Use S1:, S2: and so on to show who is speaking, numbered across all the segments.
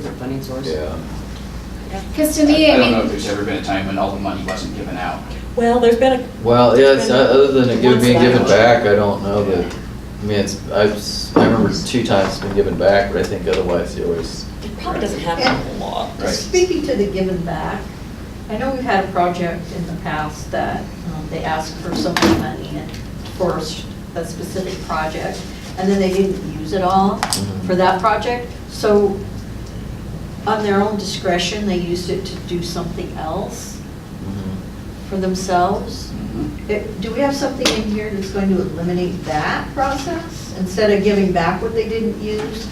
S1: funding source.
S2: Yeah.
S3: Because to me,
S4: I
S3: I
S4: don't know if
S3: mean,
S4: there's ever been a time when all the money wasn't given out.
S5: Well, there's been a,
S2: Well, yeah, it's, uh, other than it give, being given
S5: Once
S2: back, I don't know that, I mean, it's, I've, s- I remember two times it's been given back, but I think otherwise you always,
S5: it probably doesn't happen a whole lot.
S4: Right.
S6: Speaking to the given back, I know we've had a project in the past that um, they asked for some money and for a s- a specific project, and then they didn't use it all
S2: Mhm.
S6: for that project. So on their own discretion, they used it to do something else
S2: mhm.
S6: for themselves.
S3: Mm-hmm.
S4: Mhm.
S6: It- Do we have something in here that's going to eliminate that process? Instead of giving back what they didn't use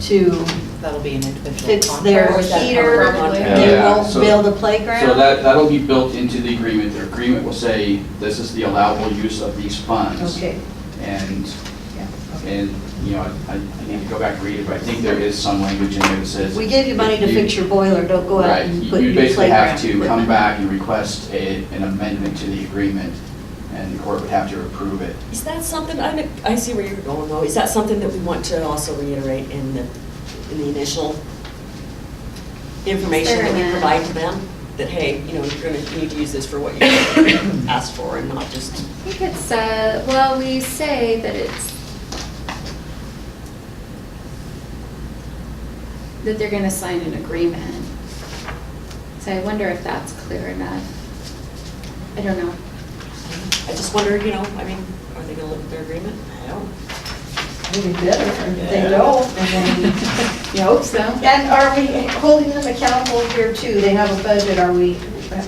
S6: to
S1: That'll be an individual
S6: fix their
S3: Where's that come
S6: heater,
S3: from?
S6: they
S4: Yeah,
S6: won't
S4: so-
S6: build a playground.
S4: So that, that'll be built into the agreement. The agreement will say, this is the allowable use of these funds.
S6: Okay,
S4: And,
S6: yeah, okay.
S4: and, you know, I, I need to go back and read it, but I think there is some language in there that says.
S6: We gave you money to fix your boiler, don't go out
S4: Right,
S6: and
S4: you
S6: put
S4: you
S6: new
S4: basically
S6: playground.
S4: have to come back and request a, an amendment to the agreement, and the court would have to approve it.
S5: Is that something, I, I see where you're going though, is that something that we want to also reiterate in the, in the initial information that we
S3: Experiment.
S5: provide to them? That, hey, you know, you're gonna need to use this for what you asked for and not just,
S3: I think it's, uh, well, we say that it's, that they're gonna sign an agreement. So I wonder if that's clear enough. I don't know.
S5: I just wonder, you know, I mean, are they gonna look at their agreement? I don't.
S6: Maybe better, and if
S5: Yeah.
S6: they don't, and then.
S3: You hope so.
S6: And are we holding them accountable here too? They have a budget, are we,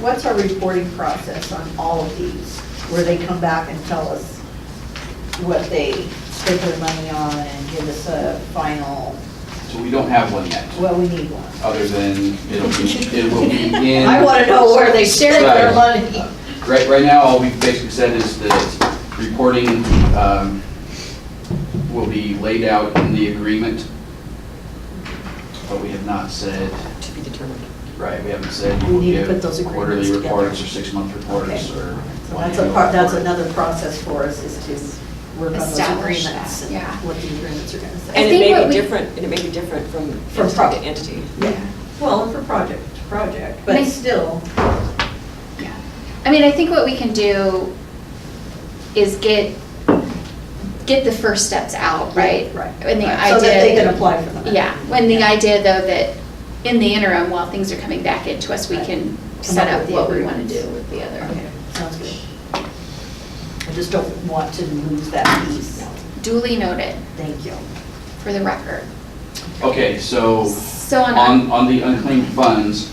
S6: what's our reporting process on all of these? Where they come back and tell us what they spent their money on and give us a final,
S4: So we don't have one yet,
S6: well, we need one.
S4: other than it'll be, it will be in.
S6: I want to know where they shared their money.
S4: Right, right now, all we've basically said is that reporting um, will be laid out in the agreement, but we have not said,
S5: To be determined.
S4: right, we haven't said
S6: We
S4: you will
S6: need to put
S4: give
S6: those agreements
S4: quarterly
S6: together.
S4: reports or six-month reports
S6: Okay.
S4: or.
S6: So that's a part, that's another process for us is to work on those
S3: Establish that,
S6: agreements and
S3: yeah.
S6: what the agreements are going to
S3: I
S5: And
S6: say.
S5: it
S3: think
S5: may
S3: what
S5: be
S3: we-
S5: different, and it may be different from
S6: From
S5: entity
S6: product.
S5: to entity.
S3: Yeah.
S6: Well, for project, to project,
S3: And
S6: but
S3: I-
S6: still.
S3: Yeah, I mean, I think what we can do is get, get the first steps out, right?
S6: Right.
S3: And the
S6: Right, So that they can
S3: idea,
S6: apply for them.
S3: yeah, when the idea though that in the interim, while things are coming back into us, we can set
S6: up
S3: up
S6: with
S3: what
S6: the
S3: we want to
S6: agreements.
S3: do with the other.
S6: Okay, sounds good. I just don't want to lose that piece.
S3: Duly noted
S6: Thank you.
S3: for the record.
S4: Okay, so
S3: So on,
S4: Oh, on, on the unclaimed funds,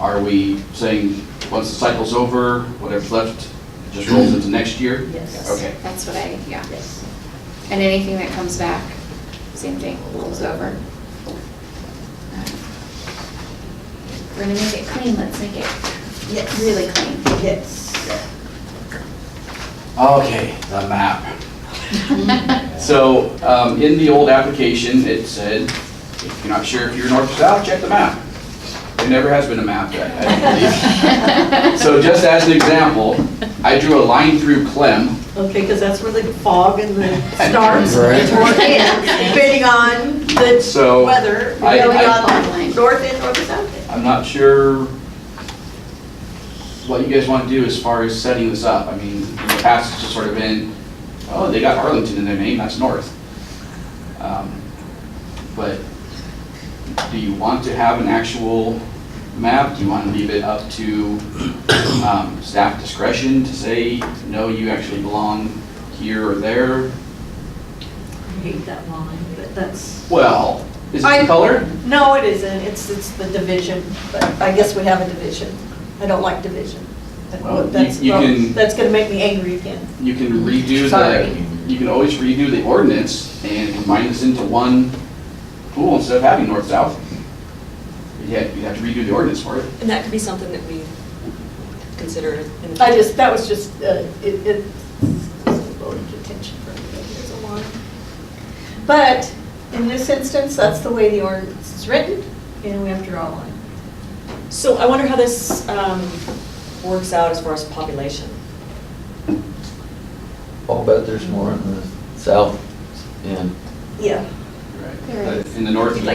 S4: are we saying, once the cycle's over, whatever's left just rolls into next year?
S6: Yes.
S4: Okay.
S3: that's what I, yeah,
S6: Yes.
S3: and anything that comes back, same thing, rolls over. We're gonna make it clean, let's make it
S6: Yes.
S3: really clean.
S6: Yes.
S4: Okay, the map. So, um, in the old application, it said, if you're not sure if you're north or south, check the map. There never has been a map, I I don't believe. So just as an example, I drew a line through Clem.
S6: Okay, because that's where the fog and the starts or
S2: Right.
S6: ends, depending on the
S4: So
S6: weather,
S4: I-
S6: going
S4: I-
S6: on north end or the south end.
S4: I'm not sure what you guys want to do as far as setting this up. I mean, in the past, it's just sort of been, oh, they got Arlington in their name, that's north. Um, But do you want to have an actual map? Do you want to leave it up to um, staff discretion to say, no, you actually belong here or there?
S6: I hate that line, but that's.
S4: Well, is it
S6: I-
S4: the color?
S6: No, it isn't. It's, it's the division, but I guess we have a division. I don't like division. That-
S4: Well, you-
S6: That's,
S4: you can-
S6: that's going to make me angry again.
S4: You can redo
S6: Sorry.
S4: the, you can always redo the ordinance and combine this into one pool instead of having north-south. You have, you have to redo the ordinance for it.
S5: And that could be something that we consider in the.
S6: I just, that was just, uh, it, it, voting contention for everybody, there's a lot. But in this instance, that's the way the ordinance is written, and we have to draw a line.
S5: So I wonder how this um, works out as far as population.
S2: I'll bet there's more in the south end.
S6: Yeah.
S4: Right.
S3: There
S4: In the north, you
S5: Like